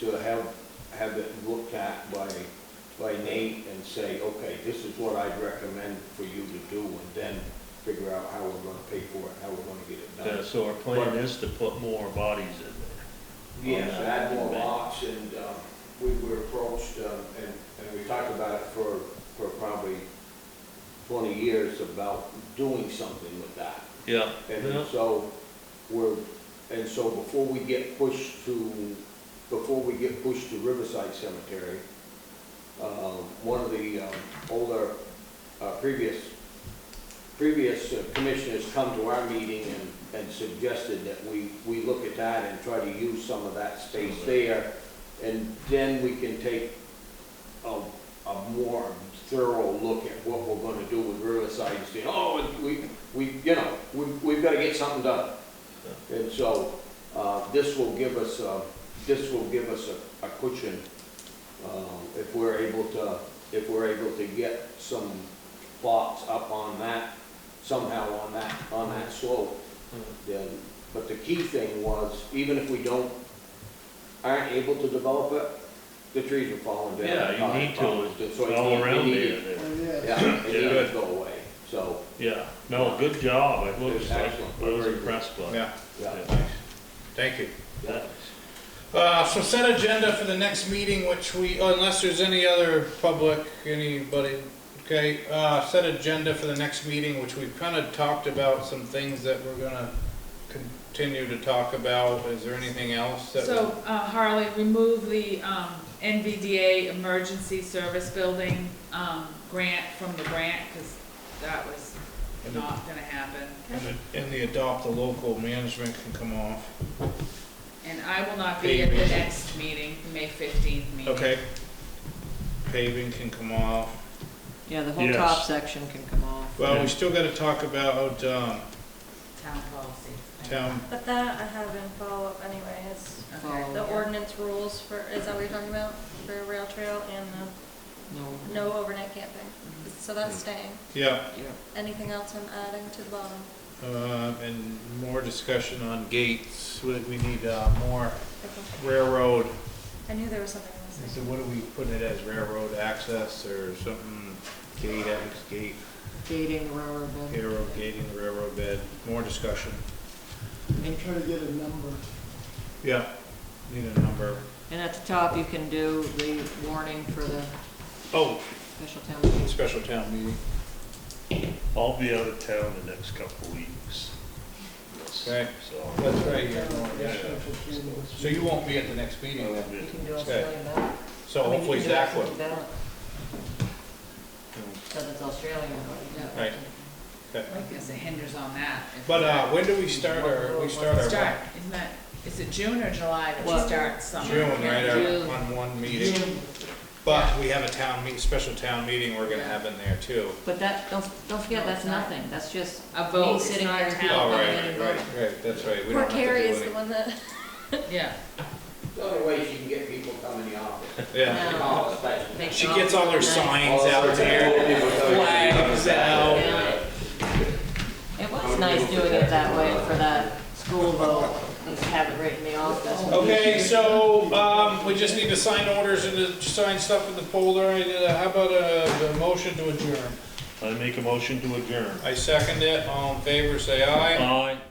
to have, have it looked at by, by Nate and say, okay, this is what I'd recommend for you to do, and then figure out how we're gonna pay for it, how we're gonna get it Yeah, done. so our plan is to put more bodies in there. Yes, add more lots, and, um, we were approached, um, and, and we talked about it for, for probably twenty years about doing something with that. Yeah, And then yeah, so, we're, and so before we get pushed to, before we get pushed to Riverside Cemetery, uh, one of the um, older, uh, previous, previous uh, commissioners come to our meeting and, and suggested that we, we look at that and try to use some of that space there. And then we can take a, a more thorough look at what we're gonna do with Riverside and say, oh, we, we, you know, we, we've gotta get something done. And so, uh, this will give us, uh, this will give us a, a cushion, uh, if we're able to, if we're able to get some plots up on that, somehow on that, on that slope then, but the key thing was, even if we don't, aren't able to develop it, the trees are falling down. yeah, you need to, So it's it all need- around it needed- there, there. Yeah, it needed Yeah. to go away, so, yeah, no, good job, it looks It's like, excellent. I was impressed by it. Yeah, yeah. thank you. yeah. Uh, so set agenda for the next meeting, which we, unless there's any other public, anybody, okay? Uh, set agenda for the next meeting, which we've kind of talked about some things that we're gonna continue to talk about. Is there anything else that? So, uh, Harley, remove the, um, NVDA Emergency Service Building, um, grant from the grant, cause that was not gonna happen. And the- And the adopt the local management can come off. And I will not be at the next meeting, the May fifteenth meeting. Okay. Paving can come off. Yeah, the whole Yes. top section can come off. Well, we still gotta talk about, um, Town policy. town, But that I have in follow-up anyway, is Okay. the ordinance rules for, is that what you're talking about? For rail trail and the No, no overnight camping. So that's staying. yeah, yeah. Anything else I'm adding to the bottom? uh, and more discussion on gates. We, we need, uh, more Okay. railroad I knew there was something I missing. said, what do we put it as, railroad access or something, gate, ex- gate, Gating, railroad bed. railroad gating, railroad bed, more discussion. And Yeah. Need a number. and at the top, you can do the warning for the Oh, special town meeting. special town meeting. I'll be out of town the next couple of weeks. Okay. So, That's right here. yeah, So you won't be at the next meeting then? You can do Okay. Australian ballot. So I mean, you hopefully can do Zach will. Australian ballot. So that's Australian, ballot, yeah. Right. I guess it hinders on that. if- But, uh, when do we start our, we start our? Start, isn't that, is it June or July that we Well- start summer? June, right, June. our, on one meeting. But we have a town meet, special town meeting we're gonna have in there too. But that, don't, don't forget, No, that's it's not. nothing, that's just A me vote, it's sitting not here. a and town. people Oh, coming right, in and right, voting. right, that's right. We Poor don't have to do Carrie is the anything. one that, Yeah. The other way she can get people coming in the office. Yeah. No. Oh, especially- Make She it gets all her nice. signs out there, flags out. Yeah. It was nice doing it that way for that school vote, just have it right in the office. Okay, so, um, we just need to sign orders and to sign stuff in the folder, and uh, how about a, a motion to adjourn? I make a motion to adjourn. I second it, all in favor, say aye. Aye.